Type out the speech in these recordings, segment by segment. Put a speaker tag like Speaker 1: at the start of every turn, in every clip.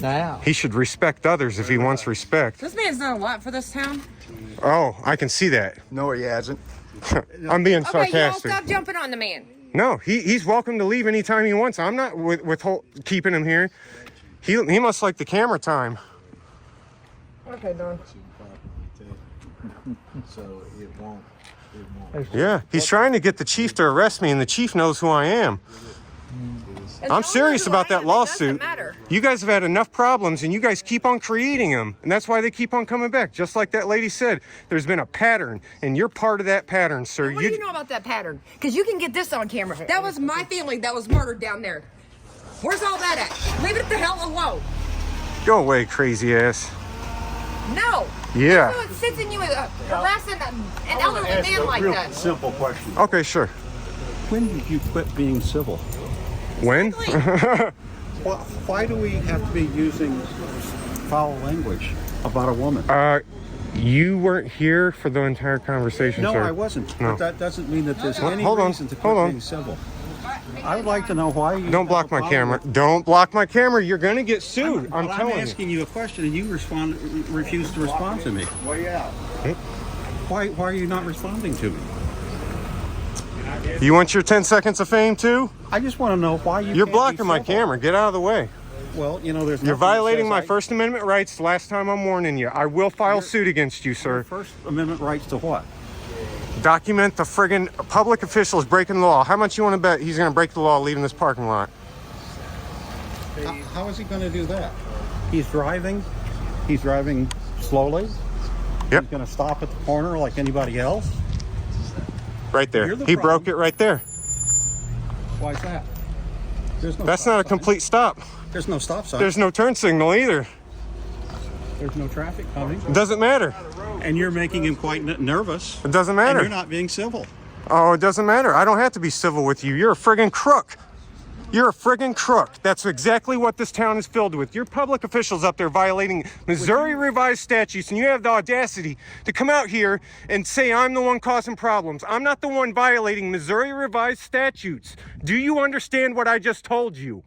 Speaker 1: Now.
Speaker 2: He should respect others if he wants respect.
Speaker 3: This man's done a lot for this town.
Speaker 2: Oh, I can see that.
Speaker 4: No, he hasn't.
Speaker 2: I'm being
Speaker 3: Okay, y'all
Speaker 2: sarcastic.
Speaker 3: stop jumping on the man.
Speaker 2: No, he, he's welcome to leave anytime he wants. I'm not with, withhold, keeping him here. He, he must like the camera time.
Speaker 3: Okay, Don.
Speaker 4: So it won't, it won't.
Speaker 2: Yeah, he's trying to get the chief to arrest me, and the chief knows who I am. I'm serious about that lawsuit. You guys have had enough problems, and you guys keep on creating them, and that's why they keep on coming back. Just like that lady said, there's been a pattern, and you're part of that pattern, sir.
Speaker 5: What do you know about that pattern? Because you can get this on camera.
Speaker 3: That was my family that was murdered down there. Where's all that at? Leave it the hell alone.
Speaker 2: Go away, crazy ass.
Speaker 5: no.
Speaker 2: Yeah.
Speaker 5: Who sits in you uh, harassing a- an
Speaker 4: I'm
Speaker 5: elderly
Speaker 4: gonna ask
Speaker 5: man
Speaker 4: a
Speaker 5: like
Speaker 4: real
Speaker 5: that?
Speaker 4: Simple question.
Speaker 2: Okay, sure.
Speaker 6: When did you quit being civil?
Speaker 2: When?
Speaker 6: Why, why do we have to be using foul language about a woman?
Speaker 2: Uh, you weren't here for the entire conversation,
Speaker 6: no,
Speaker 2: sir.
Speaker 6: I wasn't.
Speaker 2: No.
Speaker 6: But that doesn't mean that there's
Speaker 2: Hold-
Speaker 6: any
Speaker 2: hold on,
Speaker 6: reason to quit
Speaker 2: hold on.
Speaker 6: being civil. I would like to know why you
Speaker 2: Don't block my camera. Don't block my camera. You're gonna get sued. I'm,
Speaker 6: I'm
Speaker 2: telling you.
Speaker 6: asking you a question and you respond, refuse to respond to me.
Speaker 4: Way out.
Speaker 6: Why, why are you not responding to me?
Speaker 2: You want your 10 seconds of fame too?
Speaker 6: I just want to know why you.
Speaker 2: You're
Speaker 6: can't be
Speaker 2: blocking my
Speaker 6: civil.
Speaker 2: camera. Get out of the way.
Speaker 6: Well, you know, there's.
Speaker 2: You're
Speaker 6: nothing that
Speaker 2: violating
Speaker 6: says
Speaker 2: my
Speaker 6: I-
Speaker 2: First Amendment rights. Last time I'm warning you. I will file suit against you, sir.
Speaker 6: First Amendment rights to what?
Speaker 2: Document the friggin' public officials breaking the law. How much you want to bet he's gonna break the law leaving this parking lot?
Speaker 6: How- how is he going to do that? He's driving. He's driving slowly.
Speaker 2: Yep.
Speaker 6: He's going to stop at the corner like anybody else.
Speaker 2: Right there.
Speaker 6: You're the
Speaker 2: he broke it
Speaker 6: problem.
Speaker 2: right there.
Speaker 6: Why is that? There's no.
Speaker 2: That's
Speaker 6: stop
Speaker 2: not a
Speaker 6: sign.
Speaker 2: complete stop.
Speaker 6: There's no stop sign.
Speaker 2: There's no turn signal either.
Speaker 6: There's no traffic coming.
Speaker 2: Doesn't matter.
Speaker 6: Oh. And you're making him quite n- nervous.
Speaker 2: It doesn't
Speaker 6: And
Speaker 2: matter.
Speaker 6: you're not being civil.
Speaker 2: Oh, it doesn't matter. I don't have to be civil with you. You're a friggin' crook. You're a friggin' crook. That's exactly what this town is filled with. Your public officials up there violating Missouri revised statutes, and you have the audacity to come out here and say I'm the one causing problems. I'm not the one violating Missouri revised statutes. Do you understand what I just told you?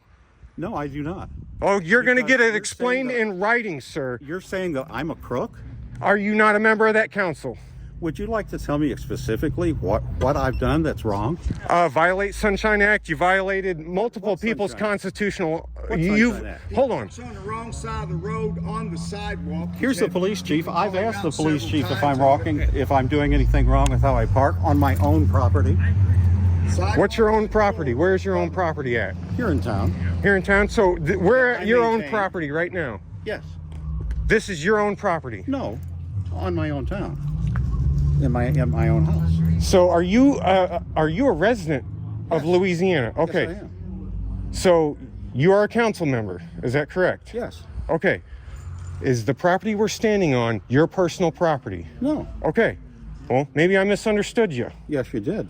Speaker 6: No, I do not.
Speaker 2: Oh, you're gonna
Speaker 6: Because
Speaker 2: get it
Speaker 6: you're
Speaker 2: explained
Speaker 6: saying
Speaker 2: in writing, sir.
Speaker 6: You're saying that I'm a crook.
Speaker 2: Are you not a member of that council?
Speaker 6: Would you like to tell me specifically what what I've done that's wrong?
Speaker 2: uh, violate Sunshine Act. You violated multiple
Speaker 6: What
Speaker 2: people's
Speaker 6: Sunshine Act?
Speaker 2: constitutional. uh,
Speaker 6: What
Speaker 2: you
Speaker 6: Sunshine Act?
Speaker 2: hold on.
Speaker 4: on the wrong side of the road on the sidewalk.
Speaker 6: Here's the police chief. I've asked the police chief if I'm walking, if I'm doing anything wrong with how I park on my own property
Speaker 2: What's your own property? Where's your own property at?
Speaker 6: here in town.
Speaker 2: Here in town. So th- we're
Speaker 6: I
Speaker 2: at your own
Speaker 6: maintain.
Speaker 2: property right now.
Speaker 6: Yes.
Speaker 2: This is your own property.
Speaker 6: No. On my own town. In my in my own house.
Speaker 2: So are you uh, are you a resident of Louisiana?
Speaker 6: Yes,
Speaker 2: Okay.
Speaker 6: I am.
Speaker 2: So you are a council member. Is that correct?
Speaker 6: Yes.
Speaker 2: Okay. Is the property we're standing on your personal property?
Speaker 6: No.
Speaker 2: Okay. Well, maybe I misunderstood you.
Speaker 6: Yes, you did.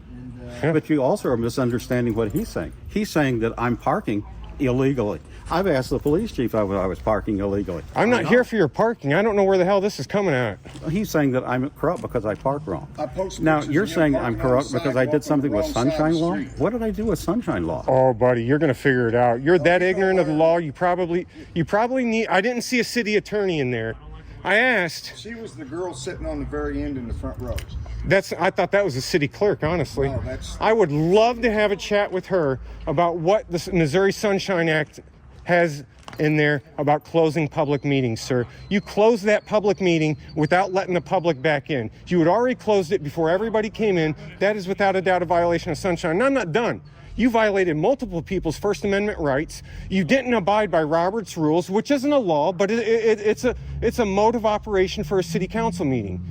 Speaker 6: But you also are misunderstanding what he's saying. He's saying that I'm parking illegally. I've asked the police chief if I was parking illegally.
Speaker 2: I'm
Speaker 6: I
Speaker 2: not
Speaker 6: know.
Speaker 2: here for your parking. I don't know where the hell this is coming at.
Speaker 6: He's saying that I'm corrupt because I park wrong.
Speaker 4: I post
Speaker 6: now
Speaker 4: pictures
Speaker 6: you're
Speaker 4: of you
Speaker 6: saying I'm
Speaker 4: parking on the
Speaker 6: corrupt because I
Speaker 4: sidewalk on
Speaker 6: did something
Speaker 4: the
Speaker 6: with
Speaker 4: wrong side of the
Speaker 6: sunshine law.
Speaker 4: street.
Speaker 6: What did I do with sunshine law?
Speaker 2: Oh, buddy, you're gonna figure it out. You're that
Speaker 4: Oh, you know
Speaker 2: ignorant of the
Speaker 4: what?
Speaker 2: law. You probably, you probably need. I didn't see a city attorney in there. I asked.
Speaker 4: She was the girl sitting on the very end in the front row.
Speaker 2: That's. I thought that was a city clerk. Honestly,
Speaker 4: No, Oh, that's-
Speaker 2: I would love to have a chat with her about what the Missouri Sunshine Act has in there about closing public meetings, sir. You closed that public meeting without letting the public back in. You had already closed it before everybody came in. That is without a doubt a violation of sunshine. And I'm not done. You violated multiple people's First Amendment rights. You didn't abide by Robert's rules, which isn't a law, but it, it, it's a it's a mode of operation for a city council meeting.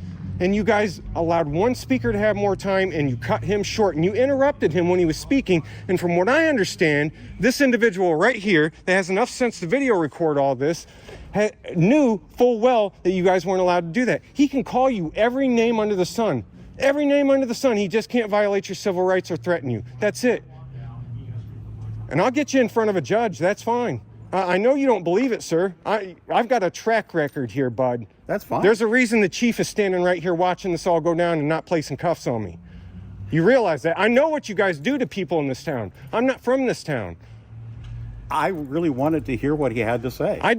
Speaker 2: And you guys allowed one speaker to have more time, and you cut him short, and you interrupted him when he was speaking. And from what I understand, this individual right here that has enough sense to video record all this ha- knew full well that you guys weren't allowed to do that. He can call you every name under the sun. Every name under the sun, he just can't violate your civil rights or threaten you. That's it and I'll get you in front of a judge. That's fine. I, I know you don't believe it, sir. I I've got a track record here, bud.
Speaker 6: That's fine.
Speaker 2: There's a reason the chief is standing right here watching this all go down and not placing cuffs on me. You realize that? I know what you guys do to people in this town. I'm not from this town.
Speaker 6: I really wanted to hear what he had to say.
Speaker 2: I